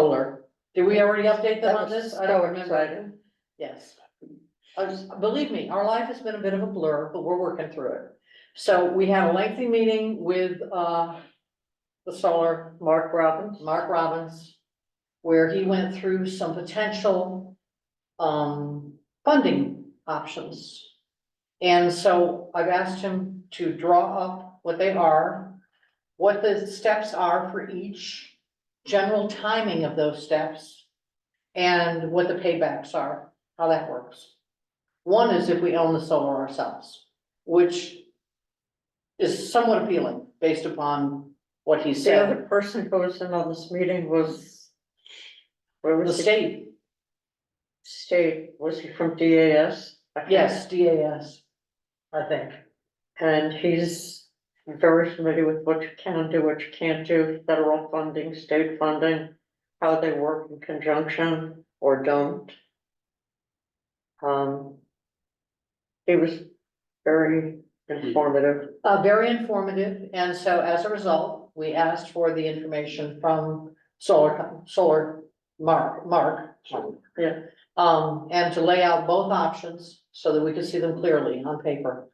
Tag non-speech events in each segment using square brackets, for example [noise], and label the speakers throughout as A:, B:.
A: solar. Did we already update them
B: That
A: on
B: was
A: this? I don't
B: so
A: remember.
B: exciting.
A: Yes. I was- believe me, our life has been a bit of a blur, but we're working through it. So we had a lengthy meeting with, uh, the solar, Mark Robbins, Mark Robbins, where he went through some potential, um, funding options. And so I've asked him to draw up what they are, what the steps are for each, general timing of those steps, and what the paybacks are, how that works. One is if we own the solar ourselves, which is somewhat appealing based upon what he
B: The
A: said,
B: other person who was in on this meeting was. Where
A: the
B: was he?
A: state,
B: State, was he from DAS? I can't-
A: yes, DAS, I think.
B: And he's very familiar with what you can do, what you can't do, federal funding, state funding, how they work in conjunction or don't. Um. He was very informative.
A: Uh, very informative, and so as a result, we asked for the information from Solar, Co- Solar Mark, Mark.
B: Yeah.
A: Um, and to lay out both options so that we could see them clearly on paper.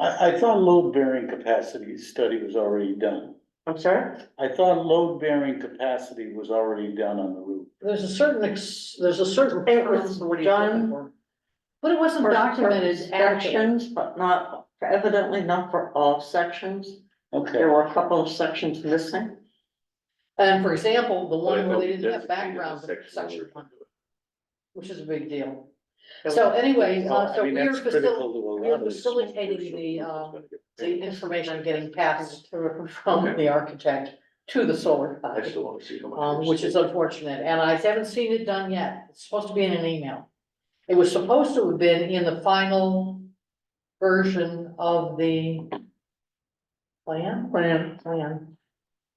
C: I, I thought load bearing capacity study was already done.
B: I'm sorry?
C: I thought load bearing capacity was already done on the roof.
A: There's a certain, ex- there's a certain.
B: It was
A: what he's looking
B: done
A: for. But it wasn't documented accurately.
B: Sections, but not, evidently not for all sections.
C: Okay,
B: There were a couple of sections missing.
A: And for example, the
D: But I
A: one where
D: know
A: they didn't
D: there's a key to
A: have
D: the
A: background
D: section where
A: section
D: we-
A: one, which is a big deal. So anyway,
C: Well,
A: uh,
C: I
A: so we
C: mean,
A: are
C: that's critical
A: facil-
C: to a
A: we are
C: lot of this small
A: facilitating the,
C: commercial
A: uh,
C: that's gonna get
A: the information getting passed from
D: Okay.
A: the architect to the solar
D: I
A: company,
D: still wanna see how much.
A: um,
D: there's
A: which is
D: saved.
A: unfortunate, and I haven't seen it done yet. It's supposed to be in an email. It was supposed to have been in the final version of the plan,
B: Plan.
A: plan.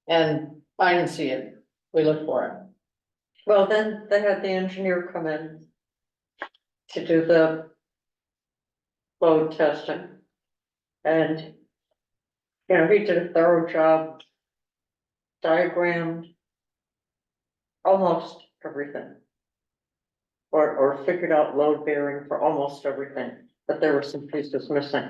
A: And I didn't see it. We looked for it.
B: Well, then they had the engineer come in to do the load testing. And, you know, he did a thorough job, diagrammed almost everything. Or, or figured out load bearing for almost everything, but there were some pieces missing.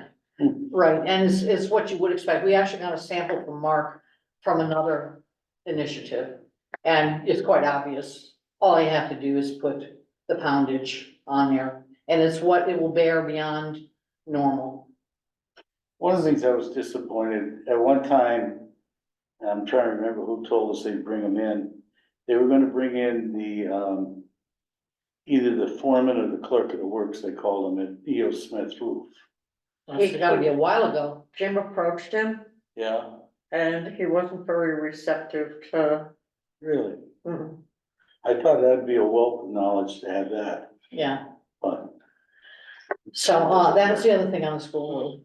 A: Right, and it's, it's what you would expect. We actually got a sample from Mark from another initiative. And it's quite obvious. All you have to do is put the poundage on there. And it's what it will bear beyond normal.
C: One of the things I was disappointed, at one time, and I'm trying to remember who told us they'd bring them in. They were gonna bring in the, um, either the foreman or the clerk of the works, they called them at E.O. Smith Roof.
A: It's gotta be a while ago.
B: Jim approached him
C: Yeah,
B: and he wasn't very receptive to,
C: really.
B: mm,
C: I thought that'd be a wealth of knowledge to have that,
A: Yeah,
C: but
A: so, uh, that's the other thing on the school board.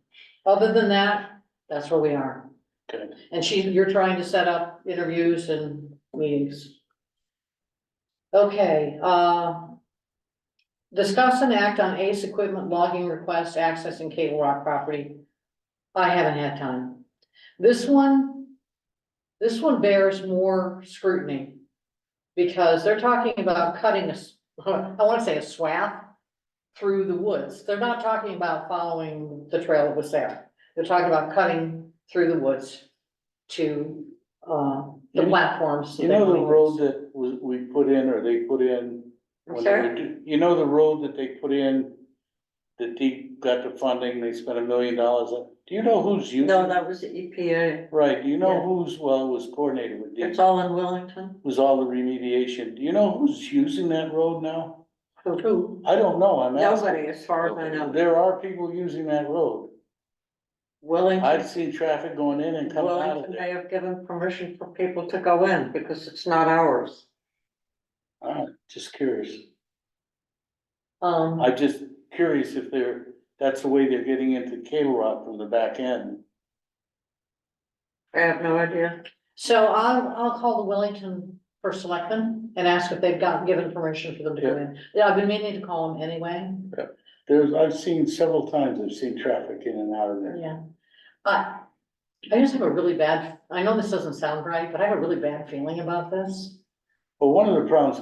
A: Other than that, that's where we are.
C: Okay.
A: And she, you're trying to set up interviews and meetings. Okay, uh. Discuss and act on ACE equipment logging request accessing Cable Rock property. I haven't had time. This one, this one bears more scrutiny. Because they're talking about cutting a, s- [laughs] I wanna say a swath through the woods. They're not talking about following the trail that was there. They're talking about cutting through the woods to, uh, the
C: You-
A: platforms. that
C: you
A: they
C: know the
A: wanna
C: road
A: use.
C: that we, we put in or they put in?
B: I'm
C: when they were
B: sorry?
C: do- You know the road that they put in, that deep got the funding, they spent a million dollars on? Do you know who's using?
B: no, that was the E EPA.
C: Right, do you know
B: Yeah.
C: who's, well, it was coordinated with
B: It's
C: DEP,
B: all in Wellington.
C: was all the remediation, do you know who's using that road now?
B: Who?
C: I don't know, I'm asking.
B: Nobody, as far as I know.
C: There are people using that road, I've
B: Wellington,
C: seen traffic going in and coming out of
B: Wellington,
C: there.
B: they have given permission for people to go in because it's not ours.
C: Alright, just curious,
A: Um,
C: I'm just curious if they're, that's the way they're getting into Cable Rock from the back end.
B: I have no idea.
A: so I'll, I'll call the Wellington for selectmen and ask if they've gotten, given permission for them to go in. Yeah, I've been meaning to call them anyway,
C: There's, I've seen several times, I've seen traffic in and out of there.
A: yeah. Uh, I, I just have a really bad, I know this doesn't sound right, but I have a really bad feeling about this.
C: Well, one of the problems